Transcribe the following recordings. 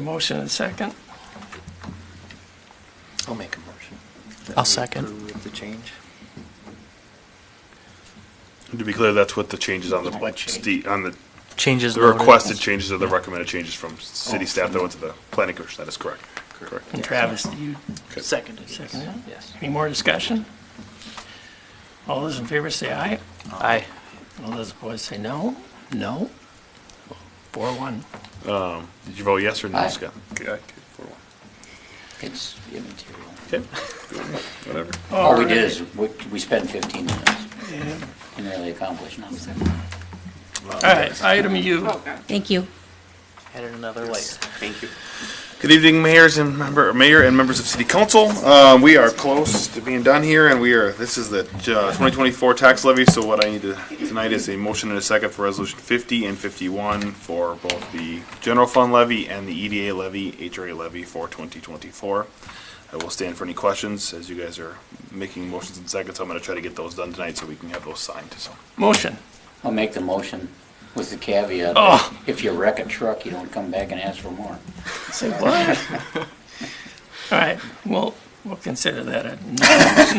motion and a second. I'll make a motion. that I'll we second. approve the change. To be clear, that's what the changes on the, What change? ste- on the, Changes the noted. requested changes are the recommended changes from city staff that went to the planning commission, that is correct. Oh, Correct. And Travis, you Okay. Seconded. yes. second it? Yes. Any more discussion? All those in favor say aye. Aye. All those opposed say no. No. Four one. Did you vote yes or no, Aye. Scott? Okay, okay, four, one. It's immaterial. Okay, whatever. All we did is, we we spent 15 minutes and really accomplished nothing. All right, item U. Thank you. Added another layer. Thank you. Good evening, mayors and member, mayor and members of city council. Uh, we are close to being done here and we are, this is the uh, 2024 tax levy. So what I need to, tonight is a motion and a second for resolution 50 and 51 for both the general fund levy and the EDA levy, HRA levy for 2024. I will stand for any questions as you guys are making motions and seconds. I'm going to try to get those done tonight so we can have those signed. So Motion. I'll make the motion with the caveat, that Oh. if you wreck a truck, you don't come back and ask for more. Say what? All right, well, we'll consider that a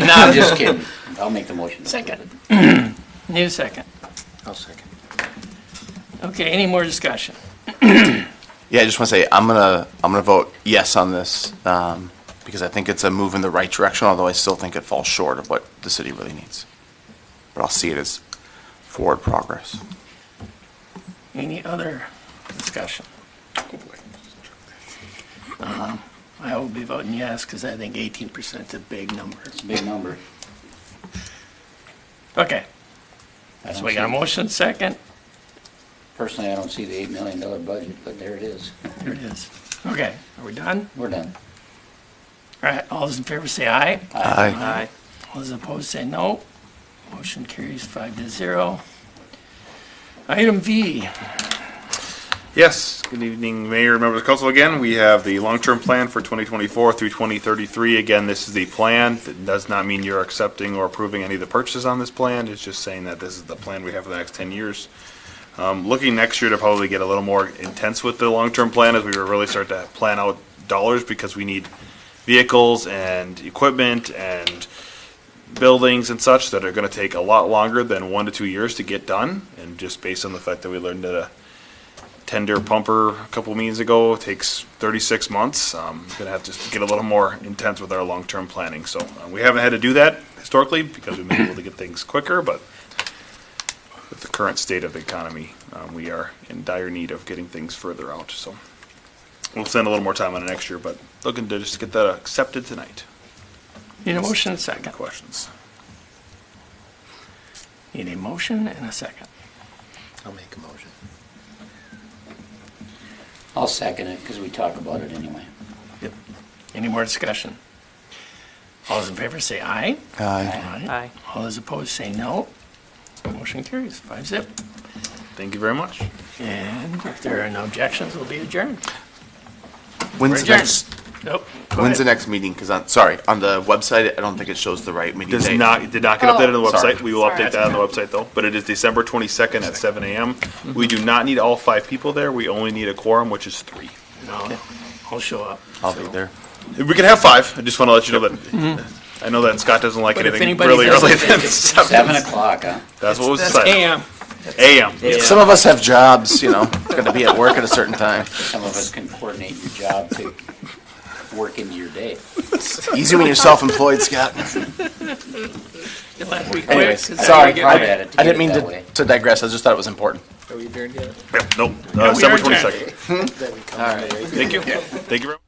no. I'm just kidding. I'll make the motion. Second. Need a second. I'll second. Okay, any more discussion? Yeah, I just want to say I'm gonna I'm gonna vote yes on this um, because I think it's a move in the right direction. Although I still think it falls short of what the city really needs, but I'll see it as forward progress. Any other discussion? Um, I will be voting yes, because I think eighteen percent's a big number. It's a big number. Okay, I so don't we got a see- motion second, Personally, I don't see the $8 million budget, but there it is. there it is. Okay, are we done? We're done. All right, all those in favor say aye. Aye. Aye. All those opposed say no. Motion carries five to zero. Item V, Yes, good evening, Mayor, members of council again. We have the long-term plan for 2024 through 2033. Again, this is the plan. It does not mean you're accepting or approving any of the purchases on this plan. It's just saying that this is the plan we have for the next 10 years. Um, Looking next year to probably get a little more intense with the long-term plan as we really start to plan out dollars because we need vehicles and equipment and buildings and such that are going to take a lot longer than one to two years to get done. And just based on the fact that we learned that a tender pumper a couple meetings ago. It takes 36 months. Um, gonna have to get a little more intense with our long-term planning. So uh, we haven't had to do that historically because we've been able to get things quicker, but with the current state of the economy, um, we are in dire need of getting things further out. So we'll spend a little more time on it next year, but looking to just get that accepted tonight. need a motion Any second. questions? Need a motion and a second. I'll make a motion. I'll second it, because we talk about it anyway. Any more discussion? All those in favor say aye. Aye. Aye. All those opposed say no. Motion carries, five zip. Thank you very much. And if there are no objections, we'll be adjourned. When's the Adjourned. next Nope. go When's the ahead. next meeting? Because on sorry on the website I don't think it shows the right meeting Does date. not, it did not get Oh. updated on the website. Sorry. We will update that on the website though, but it is December twenty-second at seven AM. We do not need all five people there. We only need a quorum, which is three. No, I'll show up. I'll be there. We can have five. I just want to let you know that. I know that Scott doesn't like But if anything anybody really does early it, than Seven seven. o'clock, huh? That's what was That's decided. AM. AM. Some of us have jobs, you know. Got to be at work at a certain time. Some of us can coordinate your job to work into your day. Easy when you're self-employed, Scott. You'll have to be quick, Anyways, 'cause sorry. we I- get- had I it to I get it didn't mean that to way. to digress. I just thought it was important. Nope, uh, we are December adjourned. twenty-second. Thank you. Thank you very much.